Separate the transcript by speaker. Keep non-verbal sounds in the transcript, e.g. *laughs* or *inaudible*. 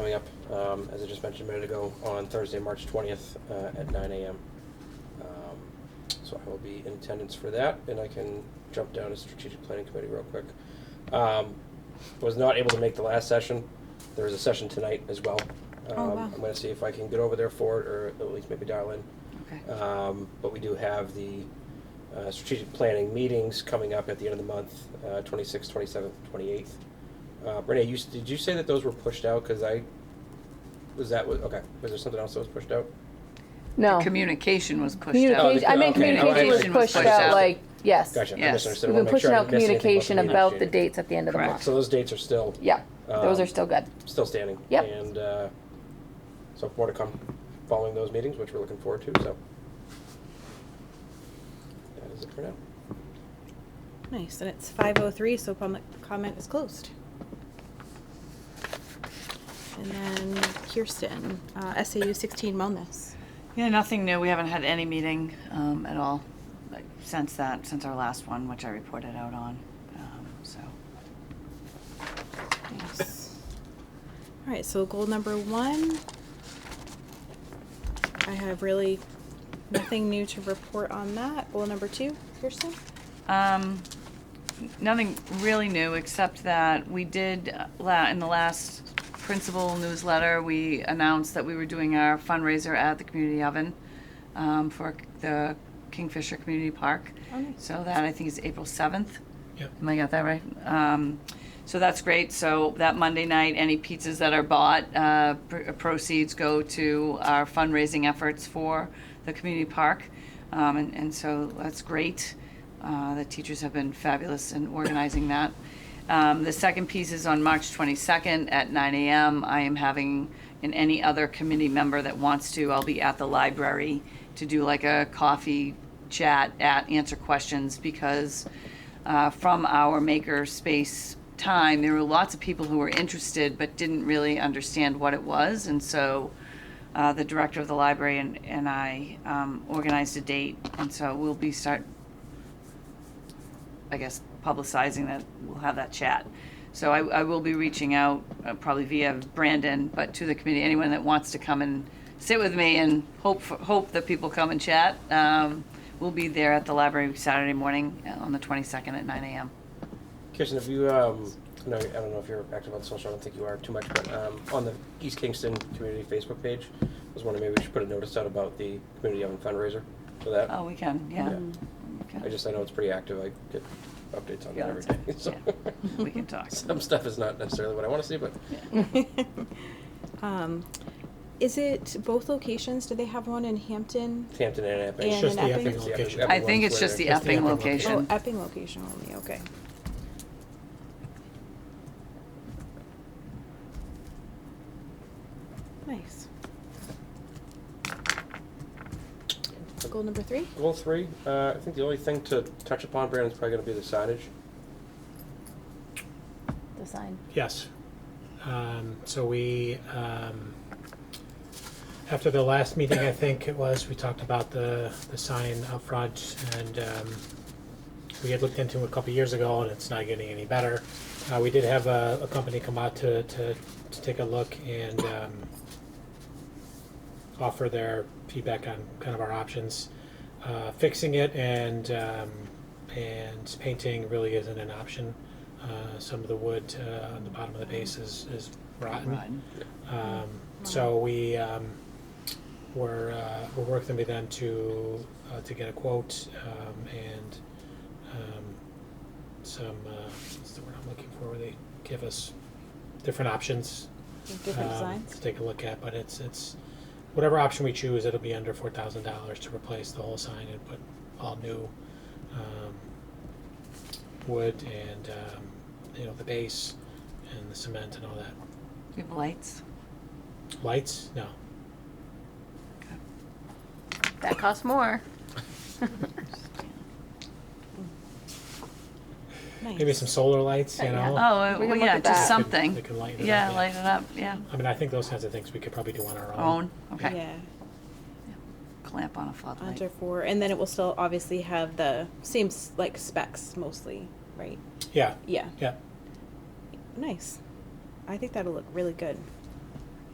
Speaker 1: coming up, um, as I just mentioned a minute ago, on Thursday, March twentieth, uh, at nine AM. Um, So I will be in attendance for that, and I can jump down to strategic planning committee real quick. Um, was not able to make the last session, there is a session tonight as well.
Speaker 2: Oh,
Speaker 1: Um,
Speaker 2: wow.
Speaker 1: I'm gonna see if I can get over there for it, or at least maybe dial in.
Speaker 2: Okay.
Speaker 1: Um, but we do have the uh, strategic planning meetings coming up at the end of the month, uh, 26th, 27th, 28th. Uh, Renee, you, s- did you say that those were pushed out? Because I, was that, what- okay, was there something else that was pushed out?
Speaker 3: No.
Speaker 2: Communication was pushed out.
Speaker 3: Oh. Communication, I meant
Speaker 1: okay,
Speaker 3: communication was
Speaker 1: communication
Speaker 3: pushed out, like, yes.
Speaker 1: Gotcha, I
Speaker 2: Yes.
Speaker 1: misunderstood. I
Speaker 3: We've
Speaker 1: wanna
Speaker 3: been
Speaker 1: make sure
Speaker 3: pushing
Speaker 1: I
Speaker 3: out
Speaker 1: didn't miss anything
Speaker 3: communication about the
Speaker 1: meeting.
Speaker 3: dates at the end of the
Speaker 2: Correct.
Speaker 3: month.
Speaker 1: So those dates are still,
Speaker 3: Yeah, those
Speaker 1: Um,
Speaker 3: are still good.
Speaker 1: still standing.
Speaker 3: Yep.
Speaker 1: And uh, so more to come following those meetings, which we're looking forward to, so. That is it for now.
Speaker 4: Nice, and it's five oh three, so public comment is closed. And then Kirsten, uh, SAU sixteen wellness.
Speaker 5: Yeah, nothing new. We haven't had any meeting um, at all like, since that, since our last one, which I reported out on. Um, so,
Speaker 4: Nice. All right, so goal number one. I have really nothing new to report on that. Goal number two, Kirsten? *laughs*
Speaker 5: um, nothing really new except that we did uh, la- in the last principal newsletter we announced that we were doing our fundraiser at the community oven um, for the Kingfisher Community Park.
Speaker 4: Oh, nice.
Speaker 5: So that I think is April seventh.
Speaker 1: Yep.
Speaker 5: Am I got that right? Um, so that's great. So that Monday night, any pizzas that are bought, uh, pr- proceeds go to our fundraising efforts for the community park. Um, and, and so that's great. Uh, the teachers have been fabulous in organizing that. Um, the second piece is on March 22nd at 9 a.m. I am having, and any other committee member that wants to, I'll be at the library to do like a coffee chat at answer questions because uh, from our maker space time, there were lots of people who were interested but didn't really understand what it was. And so uh, the director of the library and, and I um, organized a date. And so we'll be start I guess, publicizing that we'll have that chat. So I, I will be reaching out, uh, probably via Brandon, but to the committee, anyone that wants to come and sit with me and hope, for- hope that people come and chat. Um, We'll be there at the library Saturday morning uh, on the 22nd at 9 AM.
Speaker 1: Kirsten, have you, um, no, I don't know if you're active on social, I don't think you are too much, but, um, on the East Kingston Community Facebook page, I was wondering maybe we should put a notice out about the community oven fundraiser for that.
Speaker 5: Oh, we can, yeah.
Speaker 1: I
Speaker 5: Okay.
Speaker 1: just, I know it's pretty active, I get updates on
Speaker 5: Yeah,
Speaker 1: that every
Speaker 5: that's
Speaker 1: day, *laughs* so.
Speaker 5: We can *laughs* talk.
Speaker 1: Some stuff is not necessarily what I wanna see, but
Speaker 4: Um, is it both locations? Do they have one in Hampton?
Speaker 1: Hampton and Epping.
Speaker 4: And It's just in the Epping? Epping
Speaker 1: It's the
Speaker 6: location.
Speaker 5: I think
Speaker 1: ones
Speaker 5: it's
Speaker 1: where
Speaker 5: just
Speaker 1: they're-
Speaker 5: the
Speaker 6: Just the
Speaker 5: Epping
Speaker 6: Epping
Speaker 4: Oh,
Speaker 5: location.
Speaker 4: Epping location only, okay. Nice. Goal number three?
Speaker 1: Goal three, uh, I think the only thing to touch upon, Brandon, is probably gonna be the signage.
Speaker 3: The sign.
Speaker 6: Yes. Um, so we, um, after the last meeting, I think it was, we talked about the, the sign up front and, um, we had looked into it a couple of years ago and it's not getting any better. Uh, we did have a, a company come out to, to, to take a look and, um, offer their feedback on kind of our options. Uh, fixing it and, um, and painting really isn't an option. Uh, some of the wood, uh, on the bottom of the base is, is rotten.
Speaker 5: Rotten.
Speaker 6: Um, so we, um, we're, uh, we're working with them to, uh, to get a quote, um, and, um, some, uh, what's the word I'm looking for, where they give us different options.
Speaker 4: Different
Speaker 6: um,
Speaker 4: designs?
Speaker 6: To take a look at, but it's, it's, whatever option we choose, it'll be under four thousand dollars to replace the whole sign and put all new, um, wood and, um, you know, the base and the cement and all that.
Speaker 5: We have lights.
Speaker 6: Lights? No.
Speaker 5: Oh.
Speaker 3: That costs more.
Speaker 6: Maybe some solar lights, you
Speaker 3: Yeah.
Speaker 6: know?
Speaker 5: Oh,
Speaker 3: We
Speaker 5: well,
Speaker 3: can look
Speaker 5: yeah,
Speaker 3: at
Speaker 5: just
Speaker 3: that.
Speaker 6: They
Speaker 5: something.
Speaker 6: can light it up.
Speaker 5: Yeah, light it up, yeah.
Speaker 6: I mean, I think those kinds of things we could probably do on
Speaker 5: Oh.
Speaker 6: our own.
Speaker 5: Own, okay.
Speaker 4: Yeah,
Speaker 5: Clamp on a
Speaker 4: under
Speaker 5: floodlight.
Speaker 4: four, and then it will still obviously have the same, s- like, specs mostly, right?
Speaker 6: Yeah,
Speaker 4: Yeah,
Speaker 6: yeah.
Speaker 4: nice. I think that'll look really good.